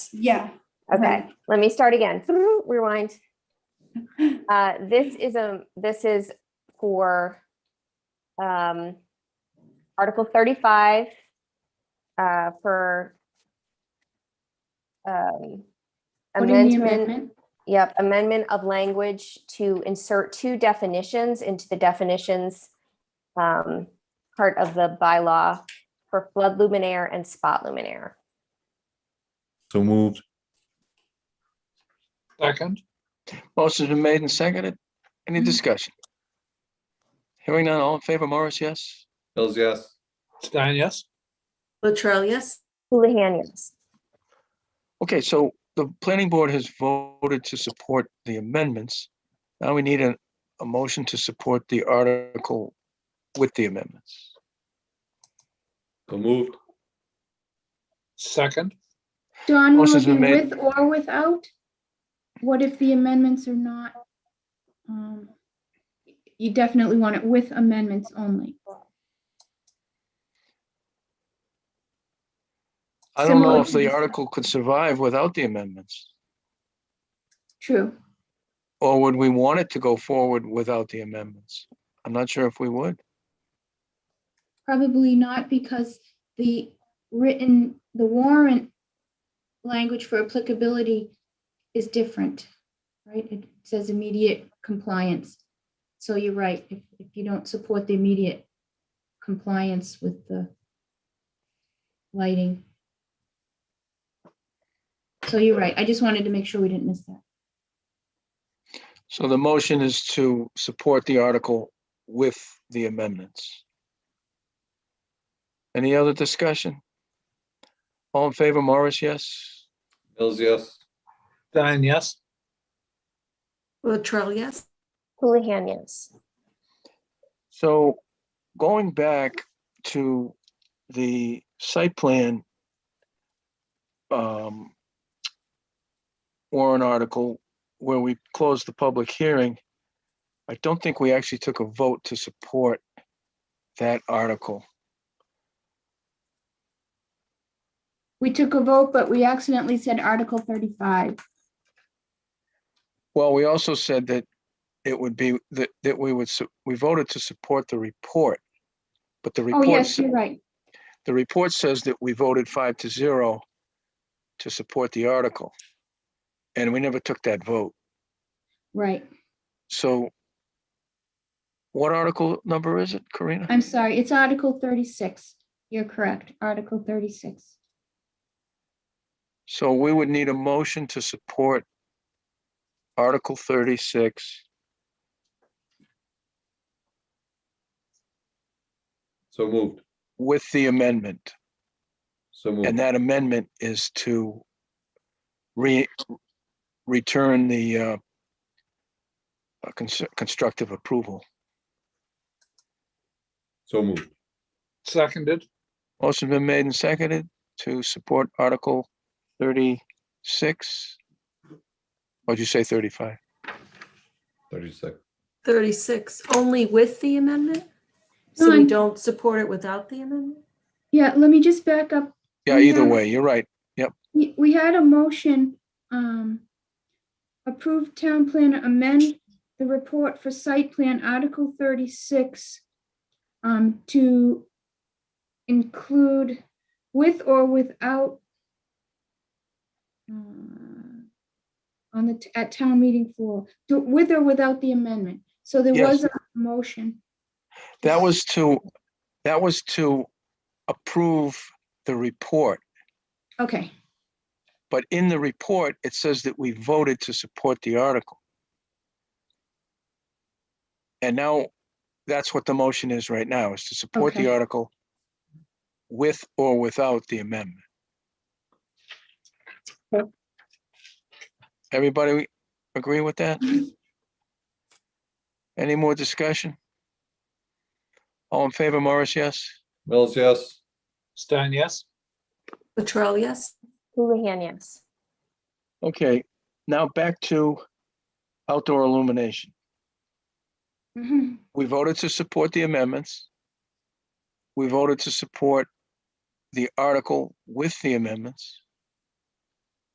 yeah. Okay, let me start again. Rewind. Uh, this is a, this is for um, Article thirty-five uh, for um, Putting the amendment, yep, amendment of language to insert two definitions into the definitions um, part of the bylaw for flood luminaire and spot luminaire. So moved. Second. Motion's been made and seconded. Any Mhm. discussion? Hearing none, all in favor, Morris, yes? Mills, yes. Stein, yes. Latrell, yes. Houlihan, yes. Okay, so the planning board has voted to support the amendments. Now we need a, a motion to support the article with the amendments. So moved. Second. Don, will Motion's it be been made. with or without? What if the amendments are not? um, You definitely want it with amendments only. I don't know Similar if to the this. article could survive without the amendments, True. or would we want it to go forward without the amendments? I'm not sure if we would. Probably not because the written, the warrant language for applicability is different, right? It says immediate compliance. So you're right, if, if you don't support the immediate compliance with the lighting. So you're right. I just wanted to make sure we didn't miss that. So the motion is to support the article with the amendments. Any other discussion? All in favor, Morris, yes? Mills, yes. Stein, yes. Latrell, yes. Houlihan, yes. So going back to the site plan um, warrant article where we closed the public hearing, I don't think we actually took a vote to support that article. We took a vote, but we accidentally said Article thirty-five. Well, we also said that it would be, that, that we would, su- we voted to support the report. But the Oh, report, yes, s- you're right. the report says that we voted five to zero to support the article. And we never took that vote. Right. So what article number is it, Karina? I'm sorry. It's Article thirty-six. You're correct. Article thirty-six. So we would need a motion to support Article thirty-six. So moved. with the amendment, So moved. and that amendment is to re, return the uh, uh, cons- constructive approval. So moved. Seconded. Motion been made and seconded to support Article thirty-six. What'd you say, thirty-five? Thirty-six. 36, only with the amendment? So No, we I'm- don't support it without the amendment? Yeah, let me just back up. Yeah, either Yeah. way, you're right. We we had a motion, um, approve town plan amend the report for site plan Article thirty-six um, to include with or without uh, on the, t- at town meeting floor, to- with or without the amendment. So there Yes. was a motion. That was to, that was to approve the report. Okay, But in the report, it says that we voted to support the article. And now, that's what the motion is right now, is to support the Okay. article with or without the amendment. Yep. Everybody agree with that? Any more discussion? All in favor, Morris, yes? Mills, yes. Stein, yes. Latrell, yes. Houlihan, yes. Okay, now back to outdoor illumination. Mhm. we voted to support the amendments. We voted to support the article with the amendments.